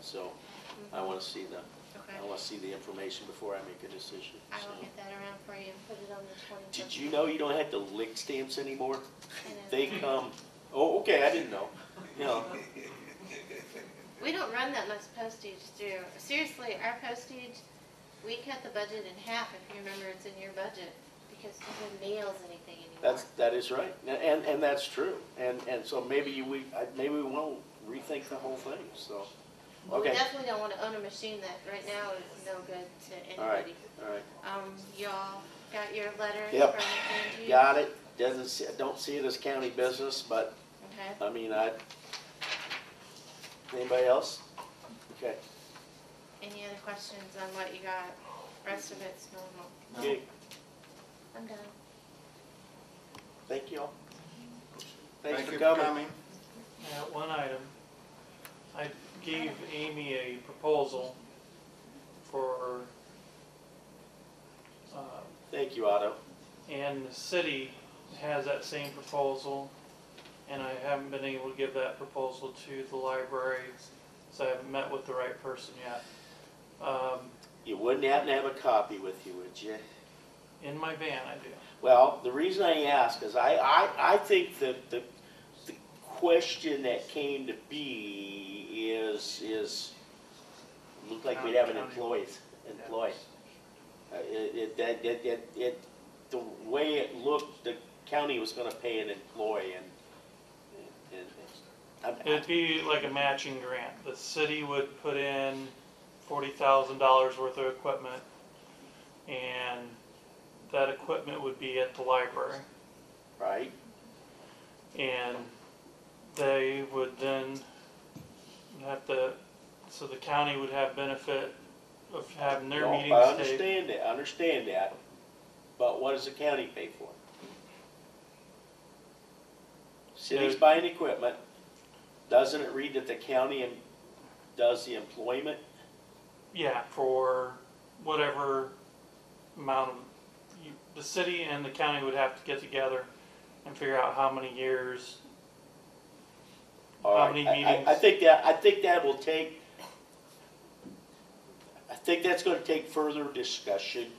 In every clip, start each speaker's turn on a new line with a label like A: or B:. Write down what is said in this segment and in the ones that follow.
A: so I want to see the,
B: Okay.
A: I want to see the information before I make a decision.
B: I
A: so.
B: will get that around for you and put it on the twenty-first.
A: Did you know you don't have to lick stamps anymore? They come, oh, okay, I didn't know. You know,
B: We don't run that much postage through. Seriously, our postage, we cut the budget in half, if you remember it's in your budget, because no one mails anything anymore.
A: that's, that is right, and, and that's true. And, and so maybe you- we, I- maybe we won't rethink the whole thing, so,
B: But We
A: okay,
B: definitely don't wanna own a machine that right now is no good to
A: all right,
B: anybody.
A: all right.
B: Um, y'all got your letter from
A: Yep.
B: Angie?
A: Got it, doesn't, see- don't see it as county business, but
B: Okay.
A: I mean, I, anybody else? Okay,
B: Any other questions on what you got? Rest of it's normal.
A: okay,
B: I'm done.
A: thank you all. Thanks
C: Thank
A: for
C: you for
A: coming.
C: coming.
D: Yeah, Uh, one item. I gave Amy a proposal for, uh,
A: Thank you, Otto.
D: and the city has that same proposal. And I haven't been able to give that proposal to the library, so I haven't met with the right person yet. Um,
A: You wouldn't happen to have a copy with you, would you?
D: in my van, I do.
A: Well, the reason I ask is I, I, I think that the, the question that came to be is, is, looked like we'd have an employees, employee. Uh, It, it, that, that, that, it, the way it looked, the county was gonna pay an employee and, and, and-
D: It'd be like a matching grant. The city would put in forty thousand dollars worth of equipment, and that equipment would be at the library.
A: right?
D: And they would then have to, so the county would have benefit of having their
A: No, I
D: meetings taped.
A: understand that, I understand that, but what does the county pay for? it? City's
D: Yeah.
A: buying equipment, doesn't it read that the county em- does the employment?
D: Yeah, for whatever amount of, you, the city and the county would have to get together and figure out how many years
A: All
D: How
A: right,
D: many
A: I- I- I
D: meetings?
A: think that, I think that will take, I think that's gonna take further discussion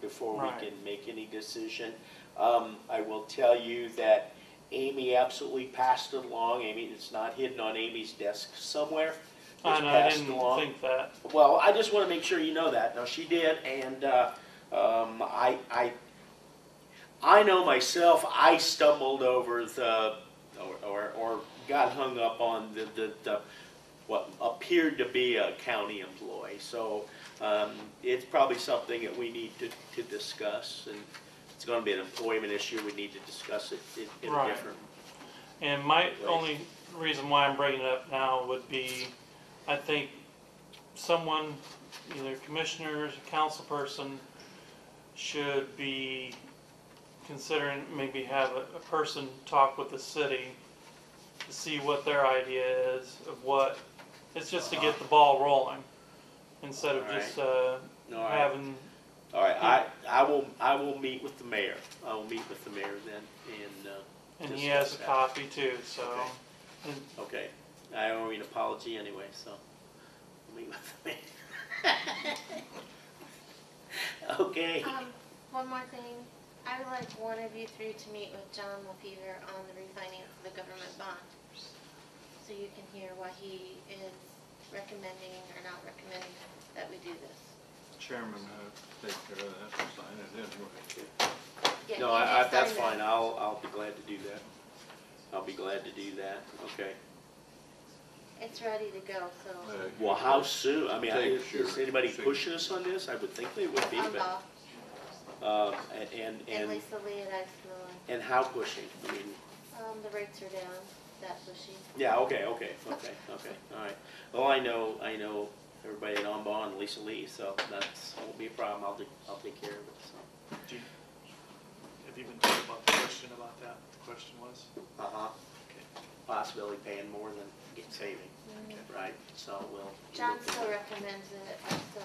A: before we
D: Right.
A: can make any decision. Um, I will tell you that Amy absolutely passed it along, Amy, it's not hidden on Amy's desk somewhere. It's
D: I know, I
A: passed
D: didn't
A: along.
D: think that.
A: Well, I just want to make sure you know that. Now, she did, and uh, um, I, I, I know myself, I stumbled over the, or, or, or got hung up on the, the, the, what appeared to be a county employee. So um, it's probably something that we need to, to discuss, and it's going to be an employment issue. We need to discuss it in- in a
D: Right.
A: different.
D: And my
A: Right.
D: only reason why I'm bringing it up now would be, I think someone, either commissioners, or council person, should be considering, maybe have a, a person talk with the city to see what their idea is of what, it's just to get the
A: Uh-huh.
D: ball rolling, instead of just, uh,
A: All right.
D: having,
A: All right, I, I will, I will meet with the mayor. I will meet with the mayor then, and, uh,
D: and he has
A: Discuss
D: a
A: that.
D: copy too, so.
A: Okay.
D: and
A: okay, I owe you an apology anyway, so, I'll meet with the mayor. Okay,
B: Um, one more thing. I would like one of you three to meet with John LaFever on the refinance of the government bond. So you can hear what he is recommending or not recommending that we do this.
C: Chairman, uh, take care of that, and sign it anyway.
B: Yeah,
A: no,
B: you
A: I, I,
B: just
A: that's
B: signed
A: fine,
B: that.
A: I'll, I'll be glad to do that. I'll be glad to do that, okay.
B: It's ready to go, so.
C: Uh,
A: Well, how soon, I mean,
C: Take
A: is, is
C: sure.
A: anybody
C: Sure.
A: pushing us on this? I would think they would be,
B: I'm
A: but,
B: off.
A: uh, and- and,
B: And
A: and,
B: Lisa Lee and I smelling.
A: and how pushing? I mean,
B: Um, the rates are down, that bushy.
A: Yeah, okay, okay, okay, okay, all right. Well, I know, I know everybody at Ombon, and Lisa Lee, so that's, won't be a problem, I'll, do- I'll take care of it, so.
E: Do you, have you been told about the question about that? The question was?
A: Uh-huh. Possibility paying more than get saving, right, so we'll.
B: John still recommends it, so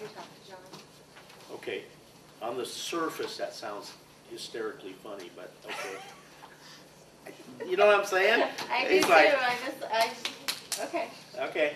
B: you talk to John.
A: Okay, on the surface, that sounds hysterically funny, but, okay. You know what I'm saying?
B: I do
A: It's
B: too,
A: like-
B: I just, I, just- okay.
A: Okay,